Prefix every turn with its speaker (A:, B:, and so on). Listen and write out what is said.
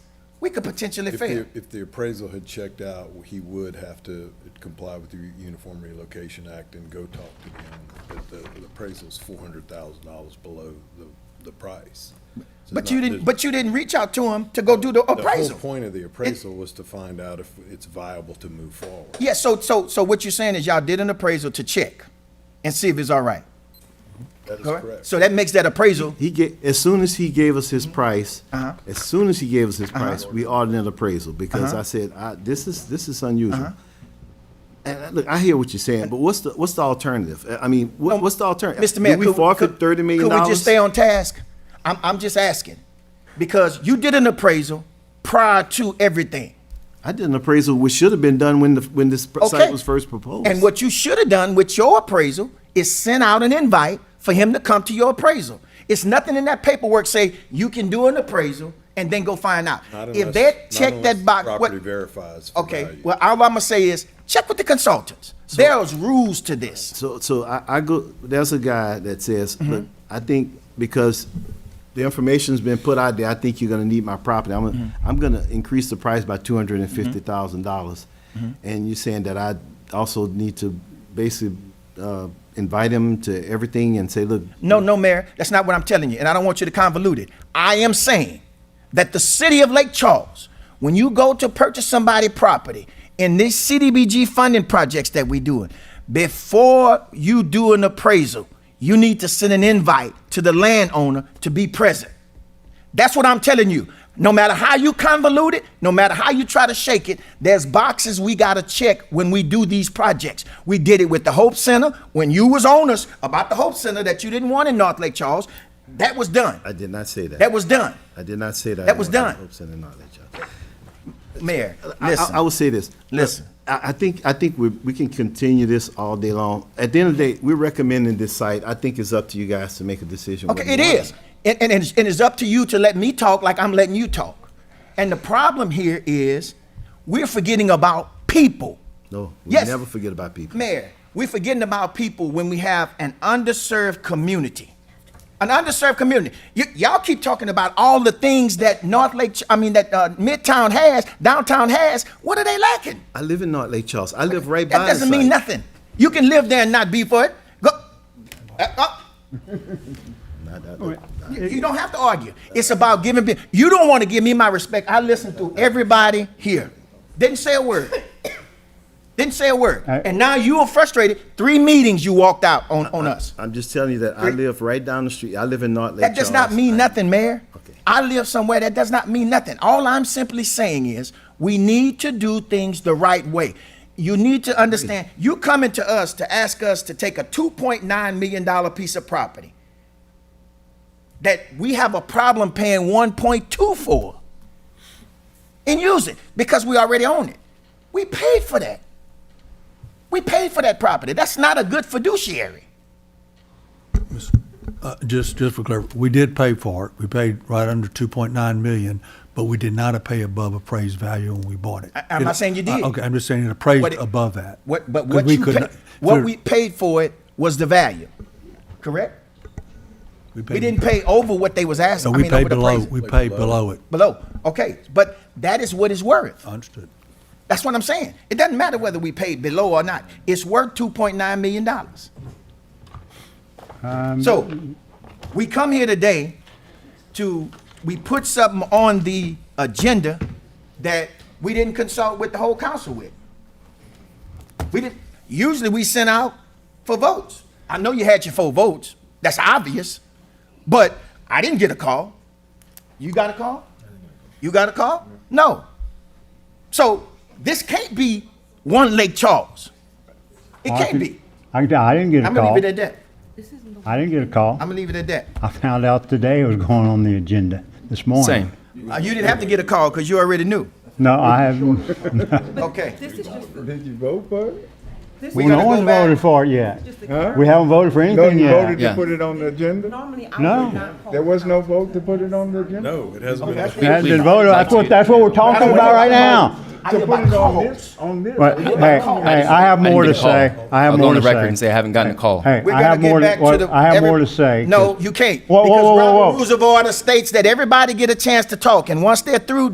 A: we could potentially
B: If
A: fail.
B: the, if the appraisal had checked out, he would have to comply with the Uniform Relocation Act and go talk to them. But the the appraisal's four hundred thousand dollars below the, the price. So it's
A: But you
B: not-
A: didn't, but you didn't reach out to him to go do the
B: The
A: appraisal.
B: whole point of the appraisal was to find out if it's viable to move forward.
A: Yeah, so, so, so what you're saying is y'all did an appraisal to check and see if it's all right.
B: That is
A: correct?
B: correct.
A: So that makes that appraisal,
C: He get, as soon as he gave us his price,
A: Uh-huh.
C: as soon as he gave us his price, we ordered an appraisal because I said, I, this is, this is unusual.
A: Uh-huh.
C: And I- look, I hear what you're saying, but what's the, what's the alternative? I mean, what, what's the alternative?
A: Mr. Mayor.
C: Do we
A: could-
C: forfeit
A: could-
C: thirty million
A: Could we just
C: dollars?
A: stay on task? I'm, I'm just asking, because you did an appraisal prior to everything.
C: I did an appraisal which should have been done when the, when this pr-
A: Okay.
C: site was first proposed.
A: And what you should have done with your appraisal is send out an invite for him to come to your appraisal. It's nothing in that paperwork say you can do an appraisal and then go find out.
B: Not
A: If
B: unless-
A: that
B: not
A: check
B: unless
A: that box,
B: Property
A: what,
B: verifies for
A: okay,
B: value.
A: well, all I'm gonna say is, check with the consultants. There's rules to this.
C: So, so I, I go, there's a guy that says,
A: Mm-hmm.
C: look, I think because the information's been put out there, I think you're gonna need my property. I'm, gonna-
A: Mm-hmm.
C: I'm gonna increase the price by two hundred and fifty thousand dollars.
A: Mm-hmm.
C: And you're saying that I also need to basically, uh, invite him to everything and say, look,
A: No, no, Mayor, that's not what I'm telling you, and I don't want you to convolute it. I am saying that the city of Lake Charles, when you go to purchase somebody property in these CDBG funding projects that we doing, before you do an appraisal, you need to send an invite to the landowner to be present. That's what I'm telling you. No matter how you convolute it, no matter how you try to shake it, there's boxes we gotta check when we do these projects. We did it with the Hope Center when you was on us about the Hope Center that you didn't want in North Lake Charles. That was done.
C: I did not say that.
A: That was done,
C: I did not say that.
A: that was
C: I
A: done.
C: hope so, and not that, y'all.
A: Mayor.
C: I- I, I
A: Listen,
C: will say this.
A: Listen.
C: I, I think, I think we, we can continue this all day long. At the end of the day, we're recommending this site. I think it's up to you guys to make a decision. whether
A: okay, it
C: you want
A: is, and and it's, and it's up to you to let me talk like I'm letting you talk. And the problem here is, we're forgetting about people.
C: No, we
A: Yes.
C: never forget about people.
A: Mayor, we're forgetting about people when we have an underserved community. An underserved community. Y- y'all keep talking about all the things that North Lake, Ch- I mean, that uh, Midtown has, downtown has. What are they lacking?
C: I live in North Lake Charles. I live right by.
A: That
C: the
A: doesn't mean
C: site.
A: nothing. You can live there and not be for it. Go. Uh, uh,
C: Not- not- not-
A: you you don't have to argue. It's about giving. pe- You don't want to give me my respect. I listened to everybody here. Didn't say a word. Didn't say a word. And now you are frustrated. Three meetings you walked out on, on us.
C: I'm just telling you that I live right down the street. I live in North Lake.
A: That does not
C: Charles.
A: mean nothing, Mayor.
C: Okay.
A: I live somewhere, that does not mean nothing. All I'm simply saying is, we need to do things the right way. You need to understand, you coming to us to ask us to take a two point nine million dollar piece of property that we have a problem paying one point two for and use it because we already own it. We paid for that. We paid for that property. That's not a good fiduciary.
D: Uh, Just, just for clarity, we did pay for it. We paid right under 2.9 million, but we did not pay above appraised value when we bought it.
A: I'm not saying you did.
D: Uh, Okay, I'm just saying it appraised
A: What it-
D: above that.
A: What, but
D: 'Cause
A: what
D: we
A: you
D: could
A: pay,
D: not-
A: what
D: there-
A: we paid for it was the value, correct? We
D: paid-
A: didn't pay over what they was asking.
D: No,
A: I
D: we
A: mean, over
D: paid
A: the
D: below,
A: price.
D: we paid below it.
A: Below, okay, but that is what it's worth.
D: Understood.
A: That's what I'm saying. It doesn't matter whether we paid below or not. It's worth two point nine million dollars. So, we come here today to, we put something on the agenda that we didn't consult with the whole council with. We didn't, usually we sent out for votes. I know you had your four votes, that's obvious, but I didn't get a call. You got a call? You got a call? No. So this can't be one Lake Charles. It
E: I
A: can't
E: can-
A: be.
E: I can tell, I didn't get a
A: I'm gonna
E: call.
A: leave it at that.
E: I didn't get a call.
A: I'm gonna leave it at that.
E: I found out today it was going on the agenda this morning.
F: Same.
A: Uh, You didn't have to get a call because you already knew.
E: No, I haven't.
A: Okay.
G: This is just,
H: Did you vote for it?
G: this
A: We
G: is
A: gotta
E: No one's
A: go back.
E: voted for it yet.
G: just the
E: We haven't voted for
H: No,
E: anything
H: you voted
E: yet.
H: to
F: Yeah.
H: put it on the agenda?
G: Normally, I
E: No.
G: would not call.
H: There was no vote to put it on the agenda?
B: No, it hasn't been.
E: It hasn't been voted. That's what, that's what we're talking about right now.
A: I
H: To
A: hear
H: put
A: about
H: it on
A: calls.
H: this, on this.
E: But, hey, hey, I have
F: I didn't
E: more to
F: get a call.
E: say. I
F: I'll
E: have
F: go
E: more
F: on
E: to
F: the record and
E: say.
F: say I haven't gotten a call.
E: Hey,
A: We're
E: I
A: gonna
E: have
A: get
E: more,
A: back
E: to-
A: to the.
E: well, I have
A: every-
E: more to say.
A: No, you can't.
E: Whoa, whoa,
A: because
E: whoa, whoa,
A: Robert
E: whoa.
A: Rules of order states that everybody get a chance to talk, and once they're through,